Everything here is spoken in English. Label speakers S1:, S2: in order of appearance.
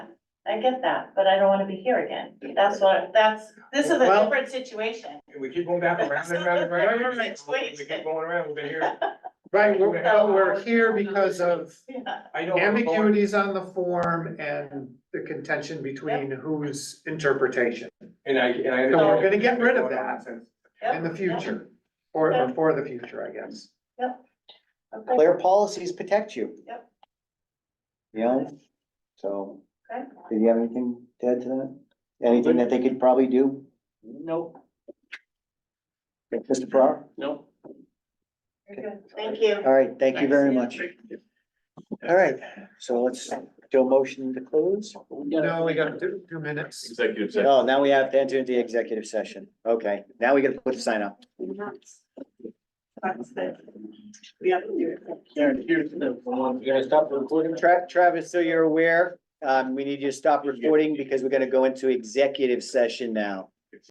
S1: I get that, but I don't wanna be here again. That's what, that's, this is a
S2: Well-
S1: different situation.
S3: We keep going back around and around and around. Oh, We keep going around, we've been here.
S2: Right, we're, well, we're here because of
S1: Yeah.
S3: I know. I'm bored.
S2: ambiguities on the form and the contention between whose interpretation
S3: And I, and I.
S2: So we're gonna get rid of that. in
S1: Yep,
S2: the
S1: yep,
S2: future, or, or for the future, I guess.
S1: okay.
S4: Clear policies protect you.
S1: Yep.
S4: You know, so,
S1: Okay.
S4: did you have anything to add to that? Anything that they could probably do?
S5: Nope,
S4: Like Mr. Farrar?
S5: nope.
S1: Very good. Thank you.
S4: All right, thank you very much. All right, so let's do a motion to close.
S5: We gotta-
S2: No, we got two, two minutes.
S6: Executive session.
S4: Oh, now we have to enter into the executive session. Okay, now we gotta put the sign up.
S1: That's it. We have to do it.
S5: Karen, here's the one.
S4: You're gonna stop recording? Tra- Travis, so you're aware, um, we need you to stop recording because we're gonna go into executive session now.